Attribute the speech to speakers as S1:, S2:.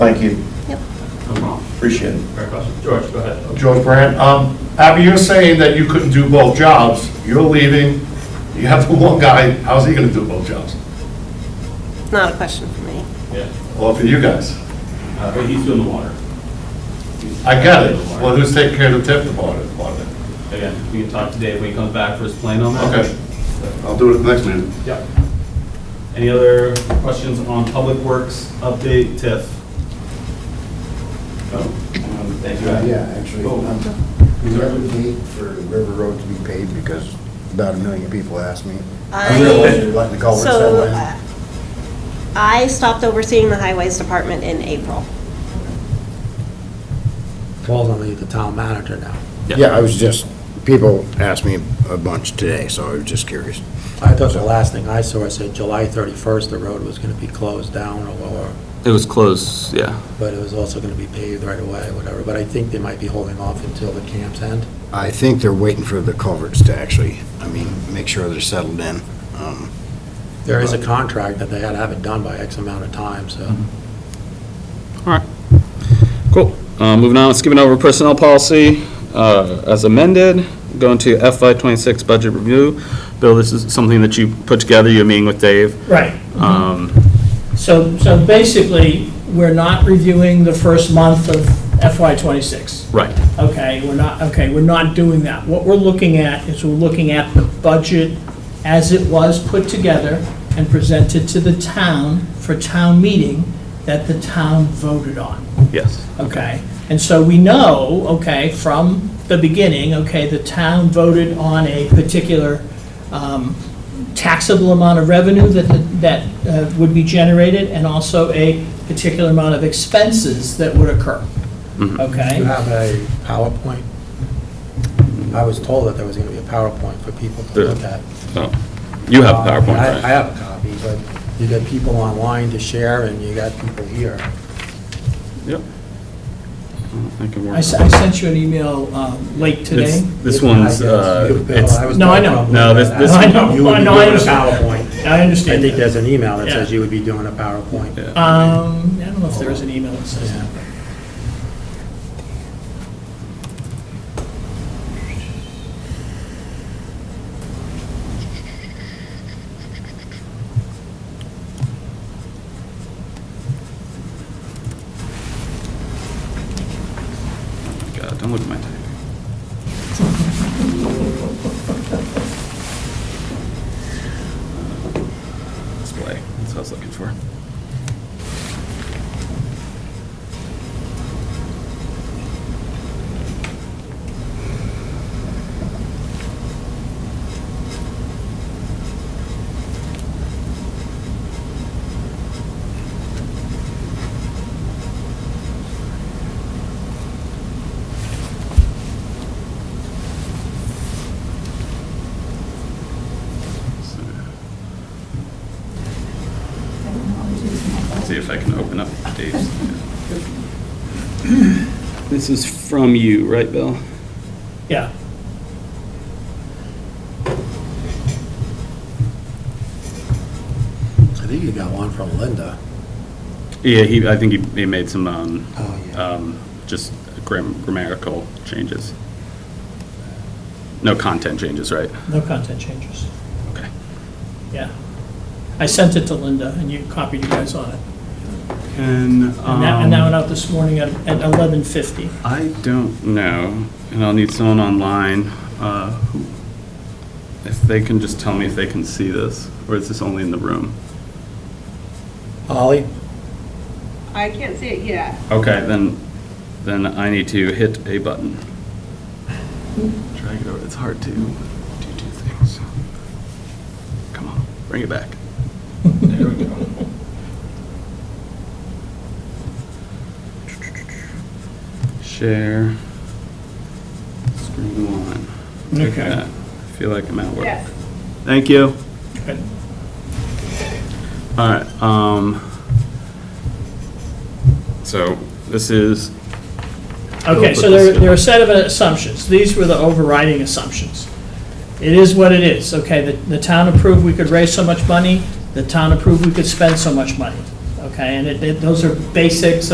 S1: Thank you,
S2: Yep.
S3: I'm wrong.
S1: appreciate it.
S3: Fair question. George, go ahead.
S4: George Brand, um, Abby, you're saying that you couldn't do both jobs, you're leaving, you have the one guy, how's he gonna do both jobs?
S2: Not a question for me.
S3: Yeah,
S4: Well, for you guys,
S3: Uh, but he's doing the water.
S4: I get it, well, who's taking care of the tip department, part of it?
S3: Again, we can talk to Dave when he comes back for his plan on that.
S4: Okay, I'll do it at the next meeting.
S3: Yep. Any other questions on Public Works update, TIF? No? Um, Thank you. Adam.
S5: Uh, Yeah, actually,
S3: Oh.
S5: um, we have a date for River Road to be paved because about a million people asked me.
S2: I-
S5: realize you're Letting the culverts
S2: So
S5: settle in.
S2: uh, I stopped overseeing the highways department in April.
S6: Falls on the the town manager now.
S5: Yeah, I was just, people asked me a bunch today, so I was just curious.
S6: I thought the last thing I saw, it said July 31st, the road was going to be closed down or lower,
S7: It was closed, yeah.
S6: but it was also going to be paved right away, whatever. But I think they might be holding off until the camps end.
S5: I think they're waiting for the culverts to actually, I mean, make sure they're settled in. Um,
S6: There is a contract that they had to have it done by X amount of time, so.
S7: Mm-hmm. Cool. Uh, Moving on, skipping over personnel policy uh, as amended, going to FY '26 budget review. Bill, this is something that you put together, you're meeting with Dave.
S8: Right.
S7: Um,
S8: So, so basically, we're not reviewing the first month of FY '26.
S7: Right,
S8: Okay, we're not, okay, we're not doing that. What we're looking at is we're looking at the budget as it was put together and presented to the town for town meeting that the town voted on.
S7: yes.
S8: Okay, and so we know, okay, from the beginning, okay, the town voted on a particular um, taxable amount of revenue that, that uh, would be generated, and also a particular amount of expenses that would occur,
S6: Do you
S8: okay?
S6: have a PowerPoint? I was told that there was going to be a PowerPoint for people to look at. Um,
S7: Oh, You have PowerPoint,
S6: Uh, I
S7: right?
S6: I have a copy, but you got people online to share and you got people here.
S7: Yep. Oh, I can
S8: I
S7: work.
S8: s- I sent you an email um, late
S7: This
S8: today.
S7: this one's,
S6: I guess
S7: uh,
S6: you, Bill,
S7: it's,
S6: I was
S8: No, I
S6: told
S8: know.
S6: probably
S7: No, this-
S6: that.
S7: this-
S8: I know,
S6: You would
S8: I
S6: be
S8: know, I
S6: doing a
S8: understand.
S6: PowerPoint.
S8: I
S6: I
S8: understand.
S6: think there's an email that says
S8: Yeah.
S6: you would be doing a PowerPoint.
S7: Yeah.
S8: Um, I don't know if there is an email that says that.
S6: Yeah.
S7: God, don't look at my typing. Uh, Display, that's what I was looking for. See if I can open up Dave's. This is from you, right, Bill?
S8: Yeah.
S6: I think you got one from Linda.
S7: Yeah, he, I think he, he made some, um,
S6: Oh,
S7: um, just gram- grammatical changes. No content changes, right?
S8: No content changes.
S7: Okay.
S8: Yeah. I sent it to Linda, and you copied you guys on it.
S7: And,
S8: And that, and that went
S7: um,
S8: out this morning at, at eleven fifty.
S7: I don't know, and I'll need someone online, uh, who, if they can just tell me if they can see this, or is this only in the room?
S6: Holly?
S9: I can't see it yet.
S7: Okay, then, then I need to hit a button. Drag it over, it's hard to do two things. Come on, bring it back.
S3: There we go.
S7: Share. Screen one. Look at
S8: Okay.
S7: that. I feel like I'm at work.
S9: Yes.
S7: Thank you.
S8: Good.
S7: All right, um, so this is,
S8: Okay, so there, there are a set of assumptions. These were the overriding assumptions. It is what it is, okay? The, the town approved we could raise so much money, the town approved we could spend so much money, okay? And it, it- those are basics